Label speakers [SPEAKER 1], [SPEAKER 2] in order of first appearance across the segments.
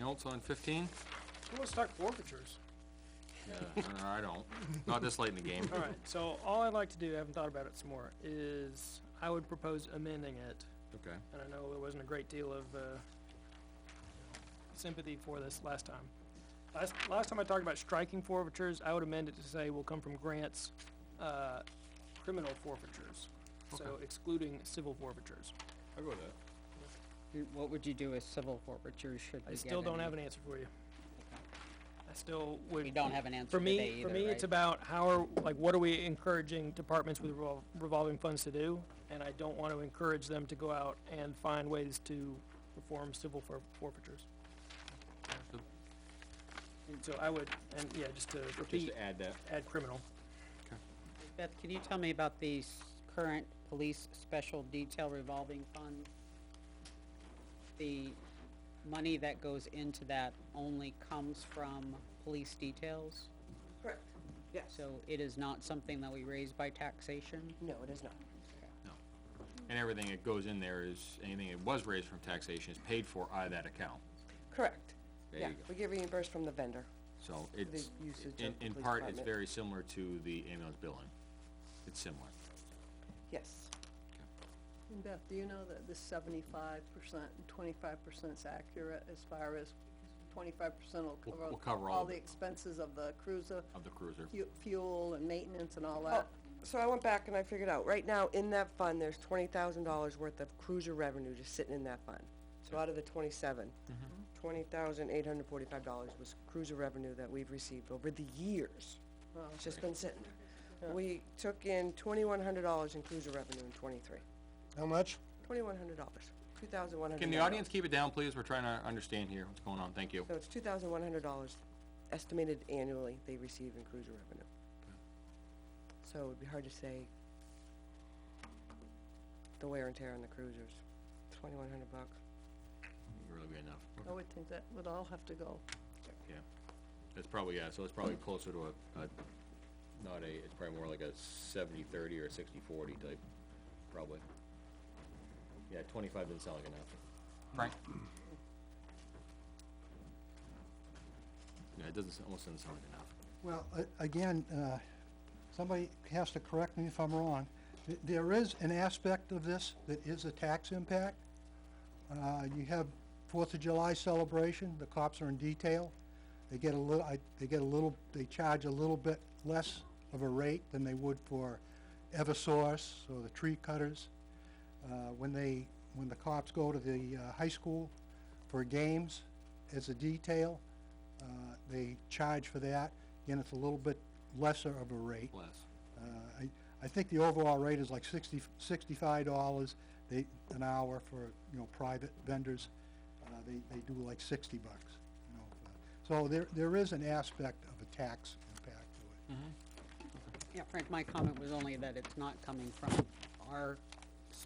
[SPEAKER 1] else on fifteen?
[SPEAKER 2] Who wants to talk forfeitures?
[SPEAKER 1] No, I don't. Not this late in the game.
[SPEAKER 2] All right, so all I'd like to do, I haven't thought about it some more, is I would propose amending it.
[SPEAKER 1] Okay.
[SPEAKER 2] And I know there wasn't a great deal of, uh, sympathy for this last time. Last, last time I talked about striking forfeitures, I would amend it to say will come from grants, uh, criminal forfeitures. So excluding civil forfeitures.
[SPEAKER 1] I'll go with that.
[SPEAKER 3] You- What would you do with civil forfeiture should we
[SPEAKER 2] I
[SPEAKER 3] get
[SPEAKER 2] still don't
[SPEAKER 3] any?
[SPEAKER 2] have an answer for you. I still would.
[SPEAKER 3] We don't have an answer
[SPEAKER 2] For
[SPEAKER 3] today
[SPEAKER 2] me,
[SPEAKER 3] either,
[SPEAKER 2] for me, it's
[SPEAKER 3] right?
[SPEAKER 2] about how are, like, what are we encouraging departments with revol- revolving funds to do? And I don't want to encourage them to go out and find ways to perform civil for- forfeitures. And so I would, and yeah, just to
[SPEAKER 1] Just
[SPEAKER 2] repeat,
[SPEAKER 1] to add that.
[SPEAKER 2] add criminal.
[SPEAKER 3] Beth, can you tell me about the s- current police special detail revolving fund? The money that goes into that only comes from police details,
[SPEAKER 4] Correct, yes.
[SPEAKER 3] so it is not something that we raise by taxation?
[SPEAKER 4] No, it is not.
[SPEAKER 1] And everything that goes in there is, anything that was raised from taxation is paid for out of that account.
[SPEAKER 4] Correct.
[SPEAKER 1] There
[SPEAKER 4] Yeah,
[SPEAKER 1] you go.
[SPEAKER 4] we get reimbursed from the vendor.
[SPEAKER 1] So it's,
[SPEAKER 4] usage of
[SPEAKER 1] in,
[SPEAKER 4] the
[SPEAKER 1] in
[SPEAKER 4] police
[SPEAKER 1] part, it's
[SPEAKER 4] department.
[SPEAKER 1] very similar to the ambulance billing. It's similar.
[SPEAKER 4] Yes,
[SPEAKER 5] And Beth, do you know that the seventy-five percent and twenty-five percent's accurate as far as twenty-five percent will
[SPEAKER 1] We'll-
[SPEAKER 5] cover
[SPEAKER 1] we'll cover all
[SPEAKER 5] all
[SPEAKER 1] of
[SPEAKER 5] the
[SPEAKER 1] it.
[SPEAKER 5] expenses of the cruiser,
[SPEAKER 1] Of the cruiser.
[SPEAKER 5] fu- fuel and maintenance and all
[SPEAKER 6] Oh.
[SPEAKER 4] Well,
[SPEAKER 5] that?
[SPEAKER 4] so I went back and I figured out, right now, in that fund, there's twenty thousand dollars worth of cruiser revenue just sitting in that fund. So out of the twenty-seven,
[SPEAKER 1] Mm-hmm.
[SPEAKER 4] twenty thousand eight hundred forty-five dollars was cruiser revenue that we've received over the years. It's just been sitting there. We took in twenty-one hundred dollars in cruiser revenue in twenty-three.
[SPEAKER 7] How much?
[SPEAKER 4] Twenty-one hundred dollars, two thousand one hundred.
[SPEAKER 1] Can the audience keep it down, please? We're trying to understand here what's going on. Thank you.
[SPEAKER 4] So it's two thousand one hundred dollars estimated annually they receive in cruiser revenue. So it'd be hard to say the wear and tear on the cruisers, twenty-one hundred bucks.
[SPEAKER 1] Really good enough.
[SPEAKER 5] I would think that would all have to go.
[SPEAKER 1] Yeah, that's probably, yeah, so it's probably closer to a, a, not a, it's probably more like a seventy-thirty or a sixty-forty type, probably. Yeah, twenty-five doesn't sound like enough. Frank? Yeah, it doesn't, s- almost doesn't sound like enough.
[SPEAKER 7] Well, a- again, uh, somebody has to correct me if I'm wrong. Th- There is an aspect of this that is a tax impact. Uh, You have Fourth of July celebration, the cops are in detail. They get a little, I- they get a little, they charge a little bit less of a rate than they would for Eversource or the tree cutters. uh, when they, when the cops go to the uh, high school for games as a detail, uh, they charge for that, and it's a little bit lesser of a rate.
[SPEAKER 1] Less.
[SPEAKER 7] Uh, I, I think the overall rate is like sixty, sixty-five dollars, they, an hour for, you know, private vendors. Uh, they, they do like sixty bucks, you know. for- So there, there is an aspect of a tax impact to it.
[SPEAKER 3] Yeah, Frank, my comment was only that it's not coming from our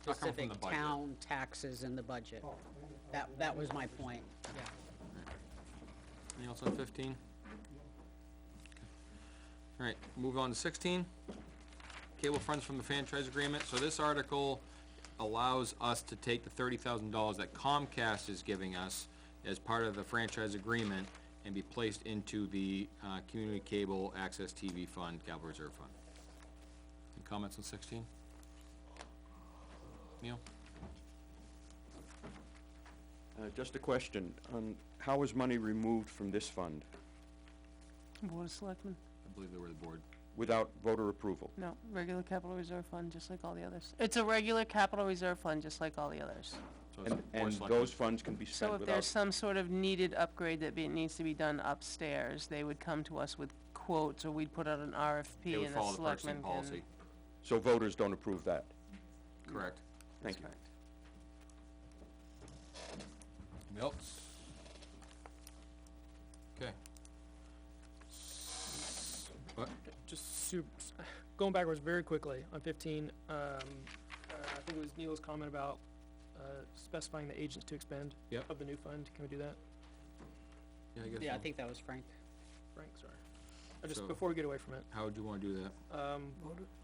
[SPEAKER 1] not coming from the
[SPEAKER 3] specific
[SPEAKER 1] budget.
[SPEAKER 3] town taxes in the budget. That, that was my point, yeah.
[SPEAKER 1] Anything else on fifteen? Alright, move on to sixteen. Cable funds from the franchise agreement, so this article allows us to take the thirty thousand dollars that Comcast is giving us as part of the franchise agreement and be placed into the, uh, Community Cable Access TV Fund, Capital Reserve Fund. Any comments on sixteen? Neil?
[SPEAKER 8] Uh, Just a question, um, how was money removed from this fund
[SPEAKER 6] Board of Selectmen?
[SPEAKER 1] I believe they were the board.
[SPEAKER 8] without voter approval?
[SPEAKER 6] No, regular capital reserve fund, just like all the others. It's a regular capital reserve fund, just like all the others.
[SPEAKER 1] So it's
[SPEAKER 8] And,
[SPEAKER 1] Board of
[SPEAKER 8] and
[SPEAKER 1] Selectmen.
[SPEAKER 8] those funds can be
[SPEAKER 6] So
[SPEAKER 8] spent
[SPEAKER 6] if there's
[SPEAKER 8] without,
[SPEAKER 6] some sort of needed upgrade that be, needs to be done upstairs, they would come to us with quotes, or we'd put out an
[SPEAKER 1] They
[SPEAKER 6] RFP
[SPEAKER 1] would
[SPEAKER 6] and the
[SPEAKER 1] follow the purchasing
[SPEAKER 6] selectmen
[SPEAKER 1] policy,
[SPEAKER 6] can.
[SPEAKER 8] so voters don't approve that?
[SPEAKER 1] correct.
[SPEAKER 8] Thank you.
[SPEAKER 1] Anything else? Okay. S- What?
[SPEAKER 2] Just super, going backwards very quickly on fifteen, um, uh, I think it was Neil's comment about, uh, specifying the agents to expend
[SPEAKER 1] Yep.
[SPEAKER 2] of the new fund. Can we do that?
[SPEAKER 1] Yeah, I guess
[SPEAKER 3] Yeah, I
[SPEAKER 1] so.
[SPEAKER 3] think that was Frank.
[SPEAKER 2] Frank, sorry. I just,
[SPEAKER 1] So-
[SPEAKER 2] before we get away from it,
[SPEAKER 1] How would you wanna do that?
[SPEAKER 2] um,